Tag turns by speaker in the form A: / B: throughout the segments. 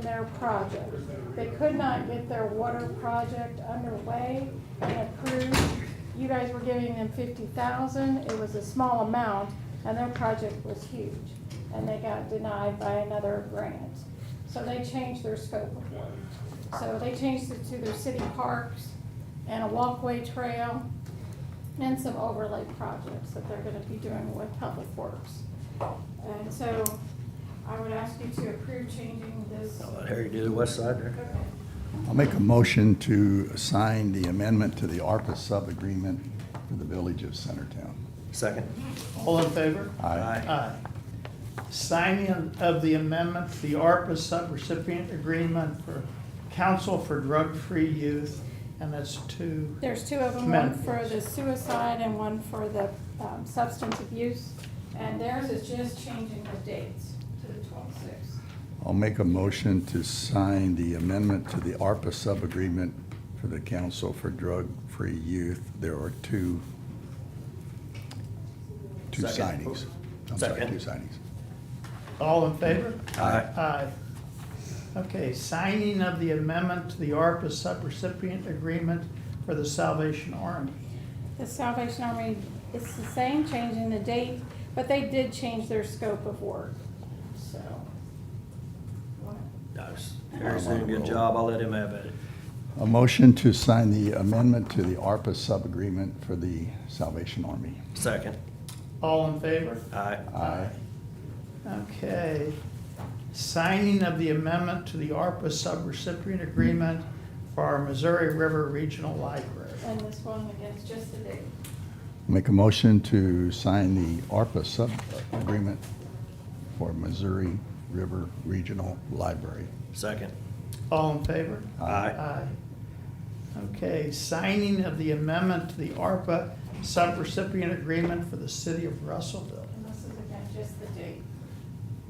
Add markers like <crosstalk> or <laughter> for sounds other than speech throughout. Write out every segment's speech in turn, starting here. A: their project. They could not get their water project underway and approved. You guys were giving them fifty thousand, it was a small amount, and their project was huge. And they got denied by another grant. So they changed their scope of work. So they changed it to their city parks and a walkway trail and some overlay projects that they're gonna be doing with Public Works. And so I would ask you to approve changing this.
B: I'll let Harry do the west side there.
A: Okay.
C: I'll make a motion to sign the amendment to the ARPA sub-agreement for the village of Centertown.
B: Second.
D: All in favor?
C: Aye.
D: Aye. Signing of the amendment to the ARPA subrecipient agreement for Council for Drug-Free Youth, and that's two.
A: There's two of them, one for the suicide and one for the um, substance abuse. And theirs is just changing the dates to the twelve-six.
C: I'll make a motion to sign the amendment to the ARPA sub-agreement for the Council for Drug-Free Youth. There are two, two
B: Second.
C: signings. I'm sorry,
B: Second.
C: two signings.
D: All in favor?
B: Aye.
D: Aye. Okay, signing of the amendment to the ARPA subrecipient agreement for the Salvation Army.
A: The Salvation Army, it's the same, changing the date, but they did change their scope of work, so.
B: Nice. Harry's doing a good job. I'll let him have at it.
C: A motion to sign the amendment to the ARPA sub-agreement for the Salvation Army.
B: Second.
D: All in favor?
B: Aye.
C: Aye.
D: Okay. Signing of the amendment to the ARPA subrecipient agreement for our Missouri River Regional Library.
A: And this one, again, it's just the date.
C: Make a motion to sign the ARPA sub-agreement for Missouri River Regional Library.
B: Second.
D: All in favor?
B: Aye.
D: Okay, signing of the amendment to the ARPA subrecipient agreement for the city of Russellville.
A: And this is again, just the date.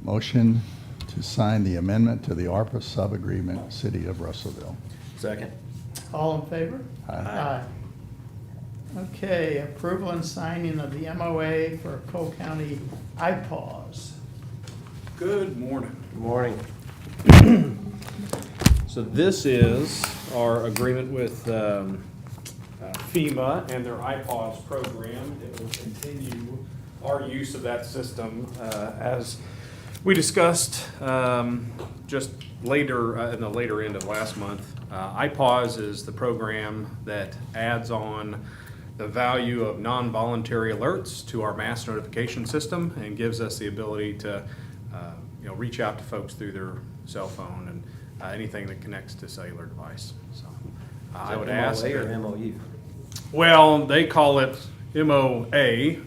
C: Motion to sign the amendment to the ARPA sub-agreement, City of Russellville.
B: Second.
D: All in favor?
C: Aye.
B: Aye.
D: Okay, approval and signing of the MOA for Cole County IPAWS.
E: Good morning.
B: Good morning.
E: So this is our agreement with um, uh, FEMA and their iPods program. It will continue our use of that system uh, as we discussed um, just later, uh, in the later end of last month. Uh, iPause is the program that adds on the value of non-voluntary alerts to our mass notification system and gives us the ability to uh, you know, reach out to folks through their cell phone and uh, anything that connects to cellular device, so. uh, I would ask.
B: MOA or
E: that-
B: MOU?
E: Well, they call it MOA, we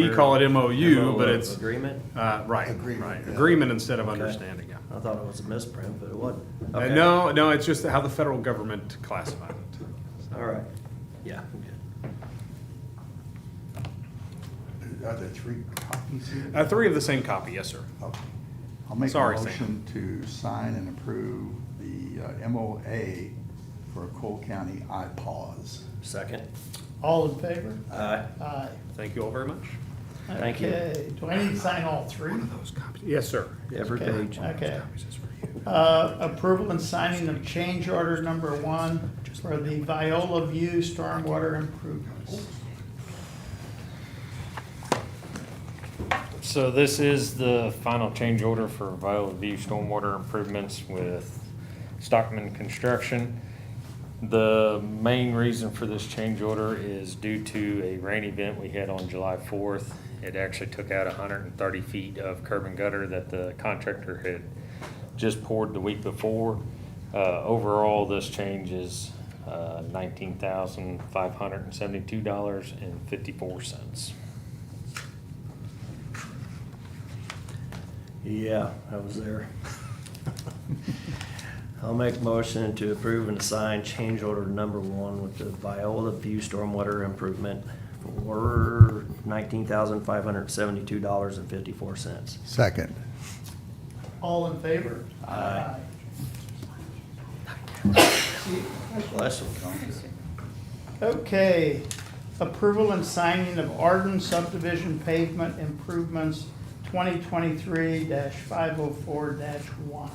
B: Member-
E: call it MOU, Oh, but
B: MOA
E: it's,
B: Agreement?
E: uh, right, right, agreement instead of understanding, yeah.
B: I thought it was a misprint, but it wasn't.
E: Uh,
B: Okay.
E: No, no, it's just how the federal government classified it.
B: All right. Yeah, I'm good.
C: Are there three copies here?
E: Uh, Three of the same copy, yes, sir.
C: Okay. I'll make a
E: Sorry, Sam.
C: motion to sign and approve the uh, MOA for Cole County IPAWS.
B: Second.
D: All in favor?
B: Aye.
D: Aye.
E: Thank you all very much.
B: Thank you.
D: Okay, do I need to sign all three?
E: Those copies. Yes, sir.
B: Every
D: Okay,
B: page.
D: Okay.
E: Copies is for you.
D: Uh, Approval and signing of change order number one for the Viola View Stormwater Improvements.
F: So this is the final change order for Viola View Stormwater Improvements with Stockman Construction. The main reason for this change order is due to a rain event we had on July fourth. It actually took out hundred and thirty feet of curb and gutter that the contractor had just poured the week before. Uh, overall, this change is, uh, nineteen thousand five hundred and seventy-two dollars and fifty-four cents.
B: Yeah, I was there. <laughs> I'll make motion to approve and assign change order number one with the Viola View Stormwater Improvement for nineteen thousand five hundred seventy-two dollars and fifty-four cents.
C: Second.
D: All in favor?
B: Aye. Bless them.
D: Okay, approval and signing of Arden subdivision pavement improvements twenty twenty-three five oh four one.